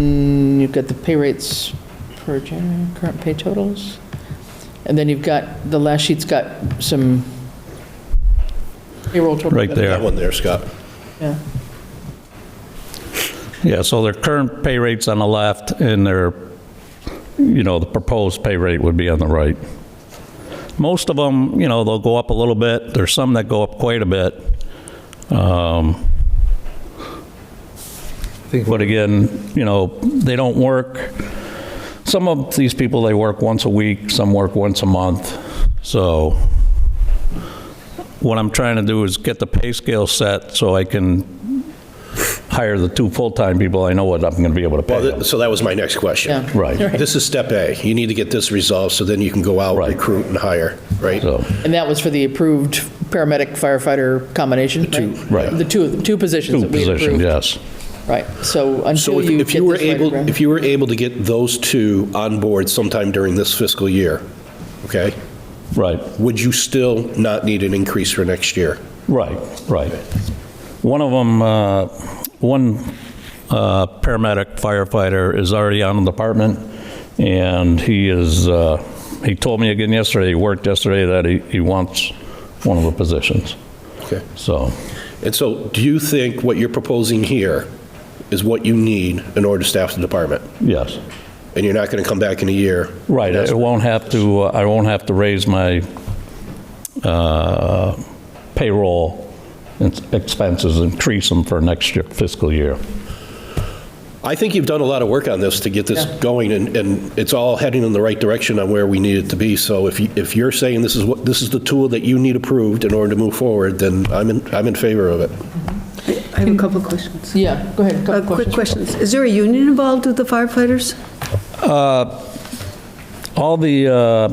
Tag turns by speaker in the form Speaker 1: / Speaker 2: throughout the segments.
Speaker 1: Mm, you've got the pay rates per January, current pay totals. And then you've got, the last sheet's got some payroll total.
Speaker 2: Right
Speaker 3: That
Speaker 2: there.
Speaker 3: one there, Scott.
Speaker 1: Yeah.
Speaker 2: Yeah, so their current pay rate's on the left, and their, you know, the proposed pay rate would be on the right. Most of them, you know, they'll go up a little bit. There's some that go up quite a bit. Um, But again, you know, they don't work, some of these people, they work once a week, some work once a month. So what I'm trying to do is get the pay scale set so I can hire the two full-time people, I know what I'm going to be able to pay
Speaker 3: Well,
Speaker 2: them.
Speaker 3: th- so that was my next question.
Speaker 1: Yeah.
Speaker 2: Right. Right.
Speaker 3: This is step A. You need to get this resolved, so then you can go out,
Speaker 2: Right.
Speaker 3: recruit, and hire, right?
Speaker 2: So,
Speaker 1: And that was for the approved paramedic firefighter combination, right?
Speaker 2: Right.
Speaker 1: The two, two positions
Speaker 2: two
Speaker 1: that we approved.
Speaker 2: positions, yes.
Speaker 1: Right, so
Speaker 3: So
Speaker 1: until
Speaker 3: if-
Speaker 1: you get
Speaker 3: if you were
Speaker 1: this right
Speaker 3: able,
Speaker 1: around-
Speaker 3: if you were able to get those two on board sometime during this fiscal year, okay,
Speaker 2: Right,
Speaker 3: would you still not need an increase for next year?
Speaker 2: right, right. One of them, uh, one uh, paramedic firefighter is already on the department, and he is, uh, he told me again yesterday, he worked yesterday, that he he wants one of the positions.
Speaker 3: Okay.
Speaker 2: So,
Speaker 3: And so do you think what you're proposing here is what you need in order to staff the department?
Speaker 2: yes.
Speaker 3: And you're not going to come back in a year?
Speaker 2: Right, I won't have to, uh, I won't have to raise my uh, payroll and expenses, increase them for next year- fiscal year.
Speaker 3: I think you've done a lot of work on this to get this
Speaker 1: Yeah.
Speaker 3: going, and, and it's all heading in the right direction on where we need it to be. So if, you- if you're saying this is what, this is the tool that you need approved in order to move forward, then I'm in, I'm in favor of it.
Speaker 4: I have a couple of questions.
Speaker 1: Yeah, go ahead, a
Speaker 4: Uh,
Speaker 1: couple
Speaker 4: Quick
Speaker 1: questions.
Speaker 4: questions. Is there a union involved with the firefighters?
Speaker 2: All the uh,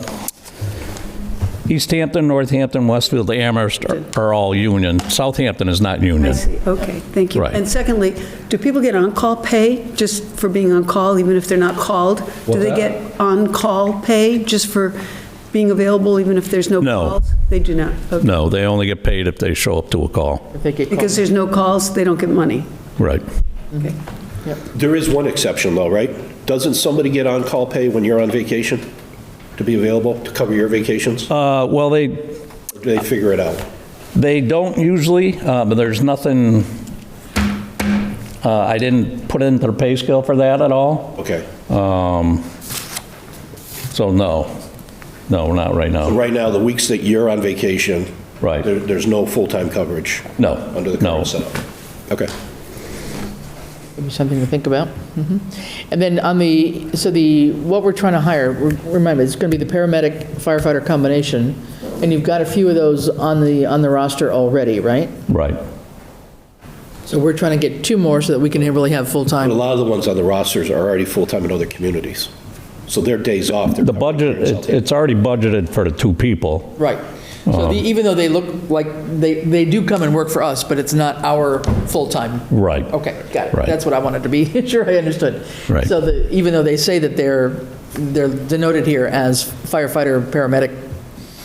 Speaker 2: East Hampton, Northampton, Westfield, Amherst are- are all union. Southampton is not
Speaker 4: I
Speaker 2: union.
Speaker 4: see. Okay, thank you.
Speaker 2: Right.
Speaker 4: And secondly, do people get on-call pay just for being on-call, even if they're not called? Do
Speaker 2: What's
Speaker 4: they
Speaker 2: that?
Speaker 4: get on-call pay just for being available, even if there's no
Speaker 2: No.
Speaker 4: calls? They do not? Okay.
Speaker 2: No, they only get paid if they show up to a call.
Speaker 1: If they get called.
Speaker 4: Because there's no calls, they don't get money?
Speaker 2: Right.
Speaker 4: Okay.
Speaker 3: There is one exception though, right? Doesn't somebody get on-call pay when you're on vacation to be available to cover your vacations?
Speaker 2: Uh, Well, they,
Speaker 3: Or do they figure it out?
Speaker 2: They don't usually, uh, but there's nothing, uh, I didn't put into the pay scale for that at all,
Speaker 3: Okay.
Speaker 2: um, so no. No, not right now.
Speaker 3: Right now, the weeks that you're on vacation.
Speaker 2: Right.
Speaker 3: there- There's no full-time coverage.
Speaker 2: No,
Speaker 3: Under the
Speaker 2: no.
Speaker 3: current setup. Okay.
Speaker 1: Maybe Something to think about. Mhm. And then on the, so the, what we're trying to hire, re- remind me, it's going to be the paramedic firefighter combination, and you've got a few of those on the, on the roster already, right?
Speaker 2: Right.
Speaker 1: So we're trying to get two more so that we can really have
Speaker 3: But a
Speaker 1: full-time.
Speaker 3: lot of the ones on the rosters are already full-time in other communities. So their days off. they're
Speaker 2: The
Speaker 3: covering
Speaker 2: budget,
Speaker 3: themselves.
Speaker 2: it- it's already budgeted for the two people.
Speaker 1: Right. So the- even though they look like, they, they do come and work for us, but it's not our full-time.
Speaker 2: Right.
Speaker 1: Okay, got it.
Speaker 2: Right.
Speaker 1: That's what I wanted to be sure I understood.
Speaker 2: Right.
Speaker 1: So the, even though they say that they're, they're denoted here as firefighter, paramedic,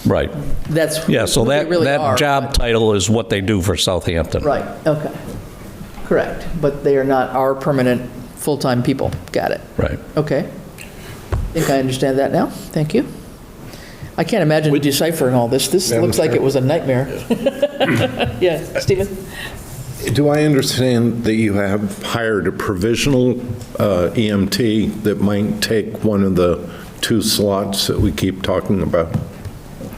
Speaker 2: Right.
Speaker 1: that's who
Speaker 2: Yeah, so
Speaker 1: who they
Speaker 2: that,
Speaker 1: really are,
Speaker 2: that job
Speaker 1: but-
Speaker 2: title is what they do for Southampton.
Speaker 1: Right, okay. Correct, but they are not our permanent, full-time people. Got it.
Speaker 2: Right.
Speaker 1: Okay. I think I understand that now. Thank you. I can't imagine deciphering all this. This looks like it was a nightmare. Yeah, Stephen?
Speaker 5: Do I understand that you have hired a provisional uh, EMT that might take one of the two slots that we keep talking about?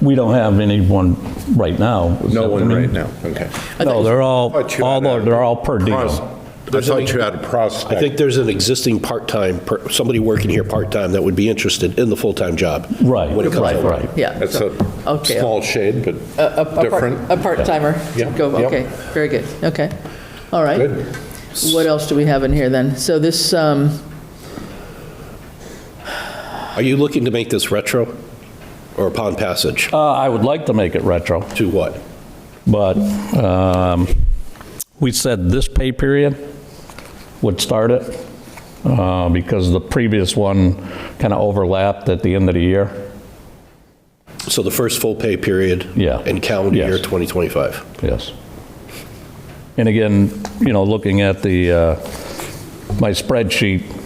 Speaker 2: We don't have anyone right now.
Speaker 5: No one right now, okay.
Speaker 2: No, they're all,
Speaker 5: Thought you
Speaker 2: all,
Speaker 5: had a-
Speaker 2: they're all per
Speaker 5: Pros-
Speaker 2: diem.
Speaker 5: I thought you had a
Speaker 3: I think
Speaker 5: prospect.
Speaker 3: there's an existing part-time, per- somebody working here part-time that would be interested in the full-time job.
Speaker 2: Right,
Speaker 3: when it comes
Speaker 2: right,
Speaker 3: over.
Speaker 2: right.
Speaker 1: Yeah.
Speaker 5: That's a
Speaker 1: Okay.
Speaker 5: small shade, but
Speaker 1: A- a part-
Speaker 5: different.
Speaker 1: A part-timer.
Speaker 5: Yeah.
Speaker 1: Go,
Speaker 5: Yep.
Speaker 1: okay, very good, okay. All right.
Speaker 5: Good.
Speaker 1: What else do we have in here then? So this, um,
Speaker 3: Are you looking to make this retro or upon passage?
Speaker 2: Uh, I would like to make it retro.
Speaker 3: To what?
Speaker 2: But um, we said this pay period would start it uh, because the previous one kind of overlapped at the end of the year.
Speaker 3: So the first full pay period?
Speaker 2: Yeah.
Speaker 3: In calendar
Speaker 2: Yes.
Speaker 3: year 2025?
Speaker 2: Yes. And again, you know, looking at the, uh, my spreadsheet,